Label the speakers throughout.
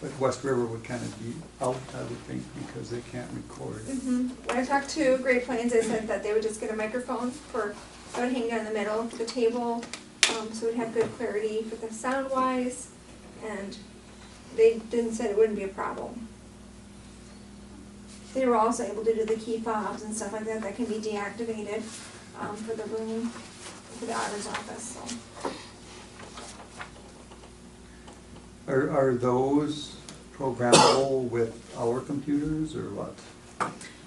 Speaker 1: But West River would kind of be out, I would think, because they can't record.
Speaker 2: Mhm. When I talked to Great Plains, they said that they would just get a microphone for, that would hang down the middle of the table, um, so we'd have good clarity for the sound wise, and they didn't said it wouldn't be a problem. They were also able to do the key fobs and stuff like that that can be deactivated, um, for the room, for the auditor's office, so.
Speaker 1: Are, are those programmable with our computers or what?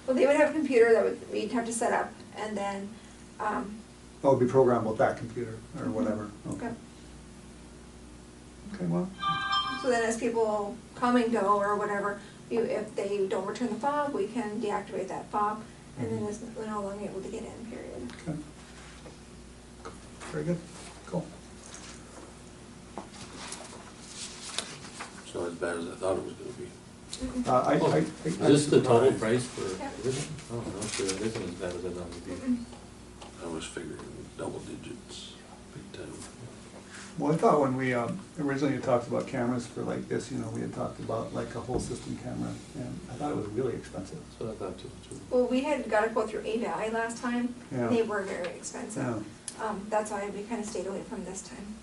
Speaker 2: Well, they would have a computer that would, we'd have to set up, and then, um,
Speaker 1: Oh, it'd be programmable with that computer or whatever, okay.
Speaker 2: Yep.
Speaker 1: Okay, well,
Speaker 2: So then as people come and go or whatever, you, if they don't return the fob, we can deactivate that fob, and
Speaker 1: Mm-hmm.
Speaker 2: then it's, they're no longer able to get in, period.
Speaker 1: okay. Very good, cool.
Speaker 3: It's not as bad as I thought it was gonna be.
Speaker 2: Mm-mm.
Speaker 1: Uh, I, I. I-
Speaker 3: Oh, Is this the total price for
Speaker 2: Yeah.
Speaker 3: everything? Oh, no, sure, it isn't as bad as I thought it would be.
Speaker 2: Mm-mm.
Speaker 3: I was figuring double digits, big time.
Speaker 1: Well, I thought when we um, originally talked about cameras for like this, you know, we had talked about like a whole system camera, and I thought it was really expensive.
Speaker 3: That's what I thought too, too.
Speaker 2: Well, we had got a quote through AVI last time,
Speaker 1: Yeah.
Speaker 2: they were very
Speaker 1: Yeah,
Speaker 2: expensive. Um, that's why we kinda stayed away from this time.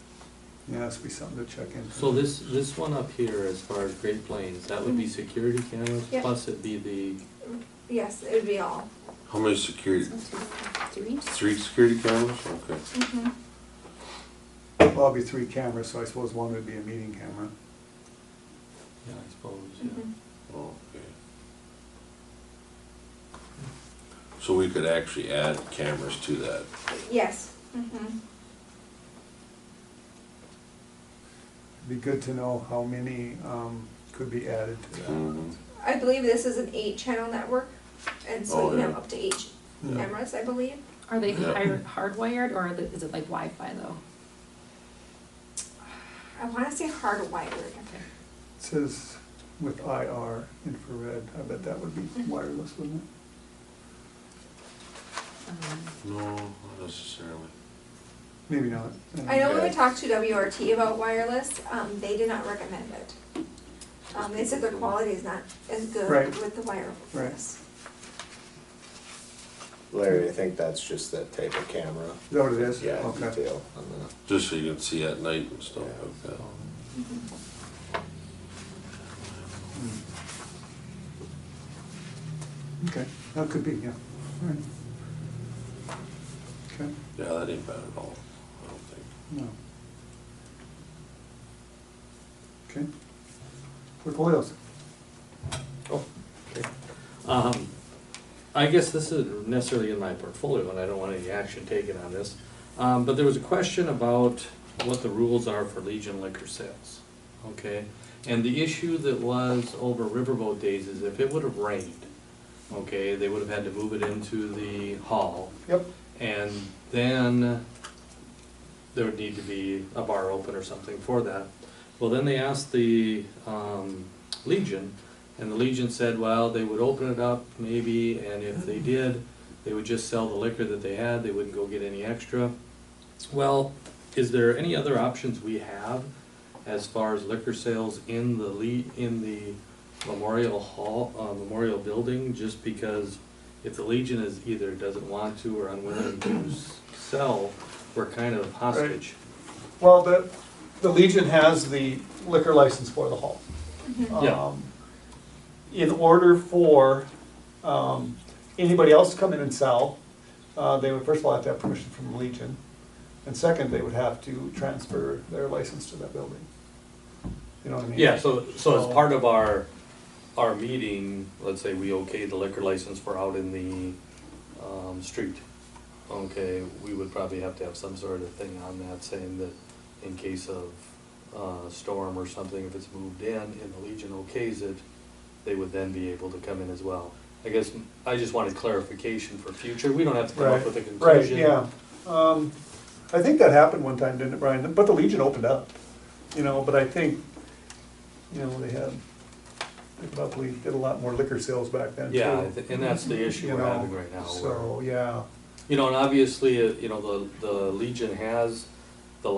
Speaker 1: yeah, that's be something to check into.
Speaker 3: So this, this one up here, as far as Great Plains, that would be security cameras,
Speaker 2: Yeah.
Speaker 3: plus it'd be the,
Speaker 2: Yes, it would be all.
Speaker 4: How many security,
Speaker 2: Three?
Speaker 4: three security cameras? Okay.
Speaker 2: Mm-hmm,
Speaker 1: Well, it'd be three cameras, so I suppose one would be a meeting camera.
Speaker 3: yeah, I suppose,
Speaker 2: Mhm.
Speaker 3: yeah.
Speaker 4: Okay. So we could actually add cameras to that.
Speaker 2: yes, mm-hmm.
Speaker 1: It'd Be good to know how many um, could be added to that.
Speaker 4: Mhm.
Speaker 2: I believe this is an eight-channel network, and so
Speaker 4: Oh,
Speaker 2: you can have
Speaker 4: yeah.
Speaker 2: up to eight
Speaker 1: Yeah.
Speaker 2: cameras, I believe.
Speaker 5: Are they
Speaker 4: Yeah.
Speaker 5: hard- hardwired or are they- is it like Wi-Fi though?
Speaker 2: I wanna say hardwired.
Speaker 1: It Says with IR infrared, I bet that would be wireless, wouldn't it?
Speaker 5: Um,
Speaker 4: No, not necessarily.
Speaker 1: Maybe not.
Speaker 2: I know when we
Speaker 4: Okay.
Speaker 2: talked to WRT about wireless, um, they did not recommend it. Um, they said the quality is not as good
Speaker 1: Right.
Speaker 2: with the wireless.
Speaker 6: Larry, I think that's just that type of camera.
Speaker 1: Is that what it is?
Speaker 6: Yeah,
Speaker 1: Okay.
Speaker 6: detail on the,
Speaker 4: Just so you can see at night and stuff like that.
Speaker 2: Mm-hmm.
Speaker 1: Hmm. Okay, that could be, yeah. All right. Okay,
Speaker 4: Yeah, that ain't bad at all, I don't think.
Speaker 1: no. Okay. Portfolios.
Speaker 3: Oh, okay. Um, I guess this isn't necessarily in my portfolio, and I don't want any action taken on this. Um, but there was a question about what the rules are for Legion liquor sales, okay? And the issue that was over Riverboat Days is if it would have rained, okay, they would have had to move it into the hall.
Speaker 1: Yep.
Speaker 3: And then there would need to be a bar open or something for that. Well, then they asked the um, Legion, and the Legion said, well, they would open it up maybe, and if they did, they would just sell the liquor that they had, they wouldn't go get any extra. Well, is there any other options we have as far as liquor sales in the Le- in the Memorial Hall, uh, Memorial Building? Just because if the Legion is either doesn't want to or unwilling to s- sell, we're kind of hostage.
Speaker 7: Well, the, the Legion has the liquor license for the hall.
Speaker 3: Yeah.
Speaker 7: Um, In order for, um, anybody else to come in and sell, uh, they would first of all have to have permission from the Legion. And second, they would have to transfer their license to that building. You know what I mean?
Speaker 3: Yeah, so, so as part of our, our meeting, let's say we okay the liquor license for out in the, um, street. Okay, we would probably have to have some sort of thing on that saying that in case of, uh, storm or something, if it's moved in and the Legion okays it, they would then be able to come in as well. I guess, I just wanted clarification for future, we don't have to come up
Speaker 7: Right,
Speaker 3: with a
Speaker 7: right,
Speaker 3: conclusion.
Speaker 7: yeah. Um, I think that happened one time, didn't it, Brian? But the Legion opened up, you know, but I think, you know, they had, they probably did a lot more liquor sales back then too.
Speaker 3: Yeah, I thi- and that's the issue
Speaker 7: you
Speaker 3: we're
Speaker 7: know,
Speaker 3: having right now. where-
Speaker 7: So, yeah,
Speaker 3: You know, and obviously, uh, you know, the, the Legion has